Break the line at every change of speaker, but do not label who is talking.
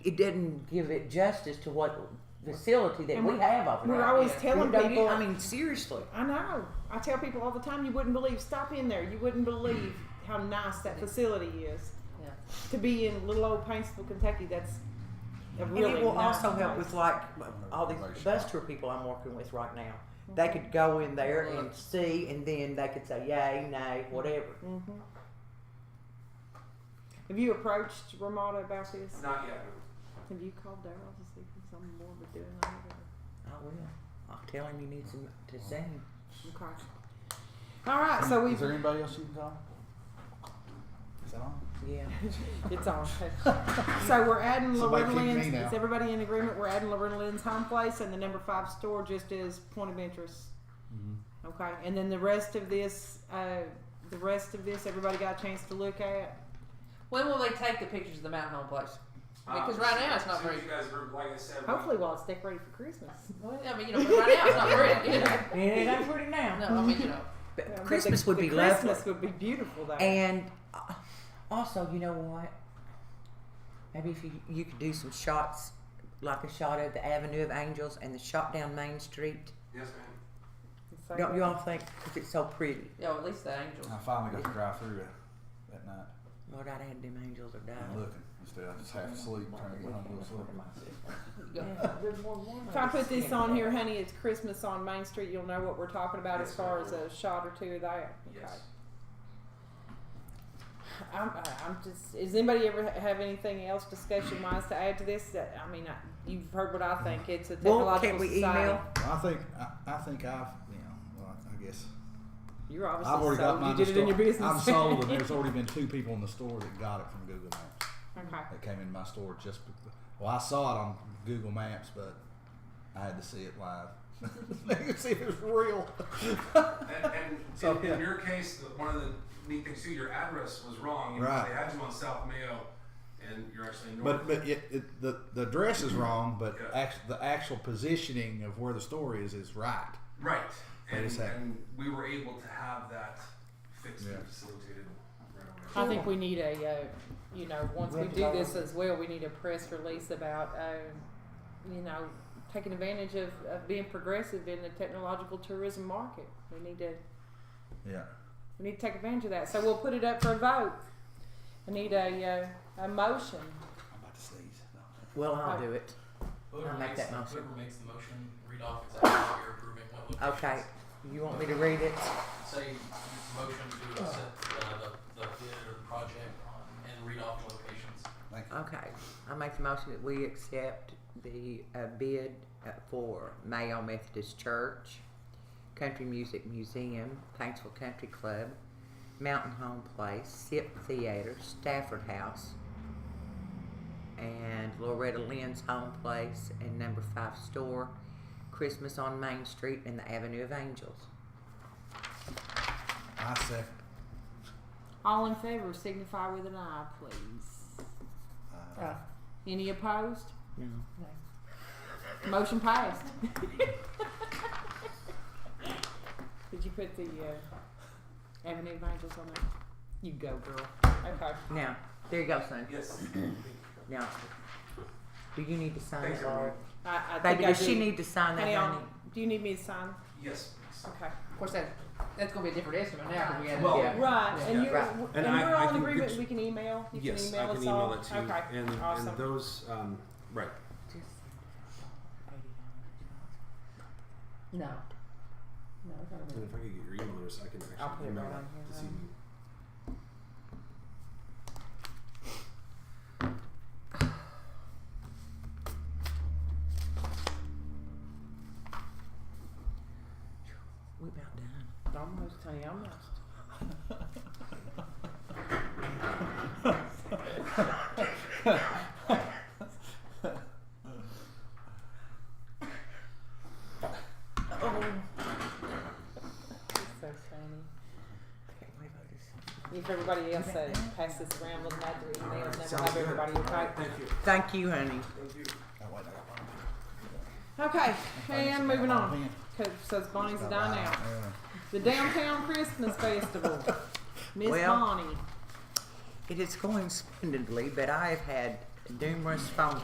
it didn't give it justice to what facility that
And
we
we-
have over there.
We're always
You
telling
know, you-
people.
I mean, seriously.
I know. I tell people all the time, you wouldn't believe. Stop in there. You wouldn't believe how nice that facility is.
Yeah.
To be in little old Paintsville, Kentucky, that's a
And
really
it will
nice
also help
place.
with like all these bus tour people I'm working with right now. They could go in there and see, and then they could say yay, nay, whatever.
Mhm. Have you approached Ramada about this?
Not yet.
Have you called Daryl to see if he's on board with doing that? or-
I will. I'll tell him he needs him to sing.
Okay. All right, so
Is
we've.
there anybody else you can call? Is that on?
Yeah.
It's on. So we're adding
Somebody
Loretta
kick me
Lynn's.
now.
Is everybody in agreement? We're adding Loretta Lynn's home place and the number five store just as point of interest.
Mm-hmm.
Okay, and then the rest of this, uh, the rest of this, everybody got a chance to look at.
When will they take the pictures of the Mountain Home Place?
Um,
Because right now it's not
as soon as
very-
You guys were, like I said,
Hopefully, while it's decorated for Christmas.
I mean, you know, but right now it's not pretty. You know?
And it ain't pretty now.
No, I mean, you know,
But
Yeah, but
Christmas
the-
would
the
be
Christmas
lovely.
would be beautiful though.
And uh, also, you know what? Maybe if you, you could do some shots, like a shot of the Avenue of Angels and the shot down Main Street.
Yes, ma'am.
So-
Don't you all think? Because it's so pretty.
yeah, at least the angels.
I finally got to drive through it that night.
Lord, I'd had them angels or
I'm
died.
looking instead. I just half asleep trying to get home to go sleep.
You go-
Yeah, there's more warm.
If I put this on here, honey, it's Christmas on Main Street. You'll know what we're talking about as
Yes,
far
I
as
will.
a shot or two of that.
Yes.
Okay. I'm, I- I'm just. Does anybody ever ha- have anything else discussion wise to add to this? That I mean, I, you've heard what I think. It's a technological
Well, can we
society.
email?
I think I, I think I've you know well, I guess
You're obviously
I've already
sold.
got mine.
you did it in your
store.
business.
I'm sold, and there's already been two people in the store that got it from Google Maps.
okay.
That came in my store just be- well I saw it on Google Maps, but I had to see it live. I could see it was real.
And, and
So,
in,
yeah.
in your case, the, one of the neat things too, your address was wrong. You
Right.
They had you on South Mayo, and you're actually in North.
But but it, it, the the address is wrong, but
Yeah.
act, the actual positioning of where the store is is right.
right.
Wait a
And,
second.
and we were able to have that fixed
Yeah.
and facilitated right away.
I think we need a, uh, you know, once we do this as well, we need a press release about, uh, you know, taking advantage of, of being progressive in the technological tourism market. We need to,
Yeah.
we need to take advantage of that. So we'll put it up for a vote. I need a, uh, a motion.
I'm about to sneeze.
Well, I'll do it. I'll
Whoever
make
makes,
that motion.
whoever makes the motion, read off exactly what you're approving, what locations.
Okay. You want me to read it?
Say, motion to accept uh, the, the bid or the project and read off the locations.
Thank you.
Okay. I make the motion that we accept the uh, bid uh, for Mayo Methodist Church, Country Music Museum, Paintsville Country Club, Mountain Home Place, Sip Theater, Stafford House, and Loretta Lynn's Home Place, and Number Five Store, Christmas on Main Street, and the Avenue of Angels.
I second.
All in favor signify with an aye, please.
Uh,
Uh,
Any opposed?
No.
Motion passed. Did you put the uh, Avenue of Angels on there? You go, girl. Okay.
Now, there you go, son.
Yes.
Now, do you need to sign
Thanks,
it, Laura?
everyone.
I, I
Baby,
think I
does she
do.
need to sign that,
Honey,
honey?
I'll- do you need me to sign?
Yes. please.
Okay.
of course, that, that's going to be a different estimate now because we had
Well,
yeah.
Right, and you're,
Right.
w-
And
and
I-
we're
I
all in
can
agreement,
get-
we can email, you can
Yes, I
email
can
us
email
all?
it to you.
Okay,
And, and
awesome.
those, um, right.
No. No, it's not a
And
bid.
if I could get your email address, I can
I'll put
actually
it
email
right on here,
it this
then.
evening.
We about done.
Almost, honey, almost. It's so funny.
Can't believe I just-
If everybody else uh, passes around, look at the
All
email,
right,
then we'll
sounds
have
good.
everybody,
All
okay?
right, Thank you.
Thank you, honey.
Thank you.
oh, wait, I got one.
Okay, and moving on.
Pen.
Co- Says Bonnie's a dime out.
Yeah.
The Downtown Christmas Festival. Miss
Well-
Bonnie.
It is going splendidly, but I have had numerous phone